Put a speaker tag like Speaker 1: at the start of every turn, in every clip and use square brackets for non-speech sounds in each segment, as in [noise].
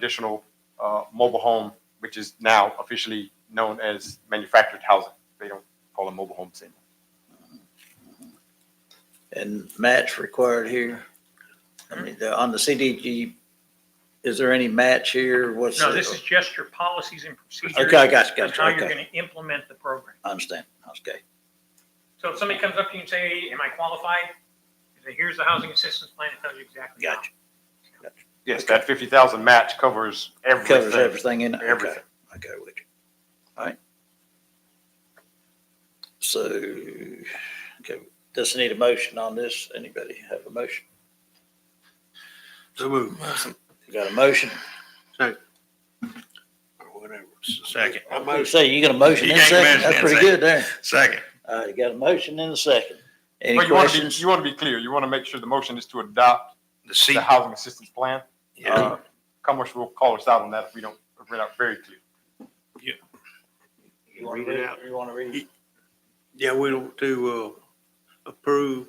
Speaker 1: additional uh, mobile home, which is now officially known as manufactured housing. They don't call them mobile homes anymore.
Speaker 2: and match required here? I mean, the- on the CDG, is there any match here? What's?
Speaker 3: No,
Speaker 2: the-
Speaker 3: this is just your policies and procedures.
Speaker 2: Okay, I got you, got you,
Speaker 3: And how you're
Speaker 2: okay.
Speaker 3: gonna implement the program.
Speaker 2: I understand. Okay.
Speaker 3: So if somebody comes up to you and say, am I qualified? You say, here's the housing assistance plan, it tells you exactly. how.
Speaker 2: Got
Speaker 1: Yes, that fifty thousand match covers
Speaker 2: Covers
Speaker 1: everything.
Speaker 2: everything in it? Okay.
Speaker 1: Everything.
Speaker 2: Okay, with you. All right. So, okay, does it need a motion on this? Anybody have a motion?
Speaker 4: So move.
Speaker 2: You got a motion?
Speaker 4: Whatever. Second.
Speaker 2: I was gonna say, you got a motion in a
Speaker 4: You got a
Speaker 2: second?
Speaker 4: motion
Speaker 2: That's
Speaker 4: in a
Speaker 2: pretty good there.
Speaker 4: Second.
Speaker 2: All right, you got a motion in a second. Any
Speaker 1: But you want to be,
Speaker 2: questions?
Speaker 1: you want to be clear. You want to make sure the motion is to adopt
Speaker 4: The seat.
Speaker 1: the housing assistance plan.
Speaker 4: Yeah.
Speaker 1: Uh, Commerce will call us out on that if we don't, if we're not very clear.
Speaker 2: You want to read it? You want to read it?
Speaker 4: Yeah, we don't do, uh, approve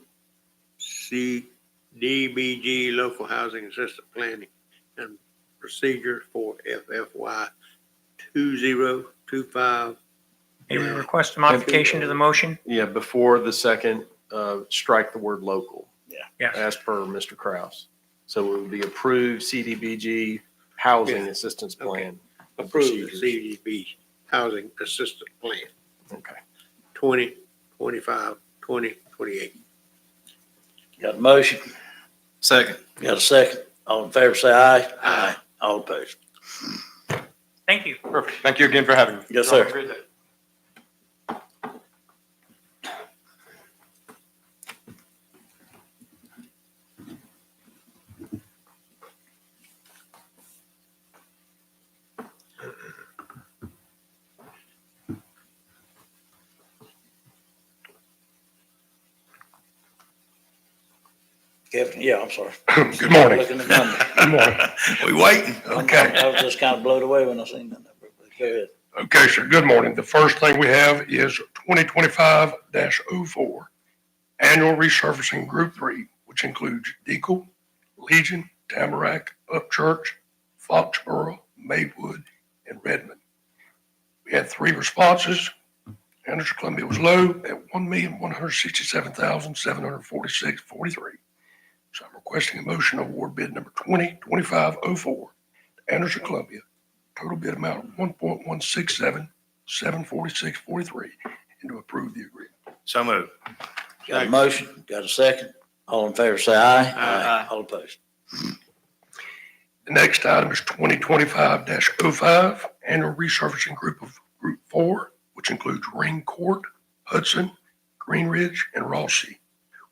Speaker 4: CDBG local housing assistance planning and procedure for FFY two zero two five.
Speaker 3: May we request a modification to the motion?
Speaker 5: Yeah, before the second, uh, strike the word local.
Speaker 2: Yeah.
Speaker 3: Yes.
Speaker 5: As per Mr. Kraus. So it would be approved CDBG Housing
Speaker 4: Yeah.
Speaker 5: Assistance
Speaker 4: Okay.
Speaker 5: Plan.
Speaker 4: Approve the CDB housing assistance plan
Speaker 5: Okay.
Speaker 4: twenty twenty-five, twenty twenty-eight.
Speaker 2: You got a motion?
Speaker 5: Second.
Speaker 2: You got a second? All in favor, say aye.
Speaker 4: Aye.
Speaker 2: All opposed.
Speaker 3: Thank you.
Speaker 1: Perfect. Thank you again for having me.
Speaker 2: Yes, sir.
Speaker 1: Have a great day.
Speaker 2: Kevin, yeah, I'm sorry.
Speaker 6: [clears throat] Good morning.
Speaker 2: Looking at the number.
Speaker 6: [laughs] Good morning. We waiting?
Speaker 2: I
Speaker 6: Okay.
Speaker 2: was just kind of blown away when I seen that number. but Go ahead.
Speaker 6: Okay, sir. Good morning. The first thing we have is twenty twenty-five 4 Annual Resurfacing Group Three, which includes Deacle, Legion, Tamarack, Upchurch, Foxborough, Maywood, and Redmond. We had three responses. Anderson Columbia was low at one million, one hundred sixty-seven thousand, seven hundred forty-six, forty-three. So I'm requesting a motion to award bid number twenty twenty-five oh four to Anderson Columbia total bid amount one point one six seven, seven forty-six, forty-three, and to approve the agreement.
Speaker 4: So move.
Speaker 2: Got a motion? Got a second? All in favor, say aye.
Speaker 4: Aye.
Speaker 2: All opposed.
Speaker 6: The next item is twenty twenty-five 5 annual resurfacing group of Group Four, which includes Ring Court, Hudson, Green Ridge, and Rossi.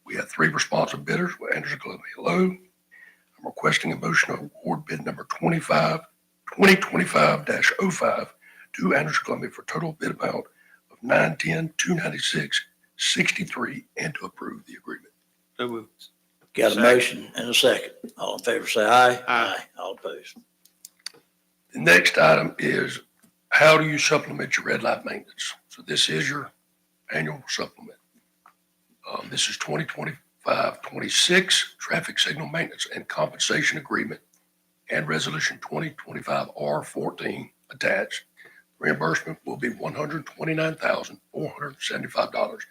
Speaker 6: We had three responsive bidders with Anderson Columbia Low. I'm requesting a motion to award bid number 25 2025-05 to Anderson Columbia for total bid amount of nine-ten, two ninety-six, sixty-three, and to approve the agreement.
Speaker 4: So move.
Speaker 2: Got a
Speaker 4: Second.
Speaker 2: motion and a second. All in favor, say aye.
Speaker 4: Aye.
Speaker 2: All opposed.
Speaker 6: The next item is how do you supplement your red light maintenance? So this is your annual supplement. Um, this is 2025, 26 traffic signal maintenance and compensation agreement and resolution 2025 R 14 attached. Reimbursement will be $129,475.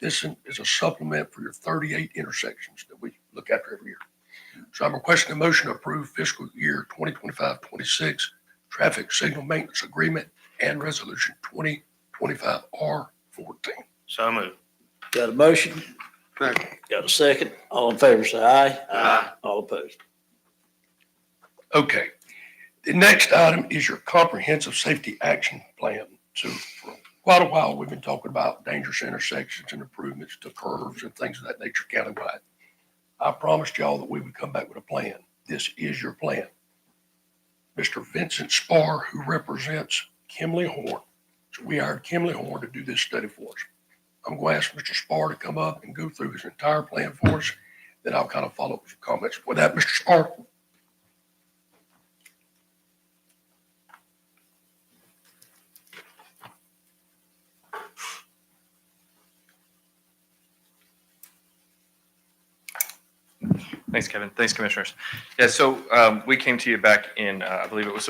Speaker 6: This is a supplement for your 38 intersections that we look after every year. So I'm requesting a motion to approve fiscal year 2025, 26 traffic signal maintenance agreement and resolution 2025 R 14.
Speaker 4: So move.
Speaker 2: Got a motion?
Speaker 4: Second.
Speaker 2: Got a second? All in favor, say aye.
Speaker 4: Aye.
Speaker 2: All opposed.
Speaker 6: Okay. The next item is your comprehensive safety action plan. So for quite a while, we've been talking about dangerous intersections and improvements to curves and things of that nature countywide. I promised y'all that we would come back with a plan. This is your plan. Mr. Vincent Spar, who represents Kimley Horn. So we hired Kimley Horn to do this study for us. I'm going to ask Mr. Spar to come up and go through his entire plan for us. Then I'll kind of follow up with some comments. With that, Mr. Spar?
Speaker 1: Thanks, Kevin. Thanks, Commissioners. Yeah, so um, we came to you back in, uh, I believe it was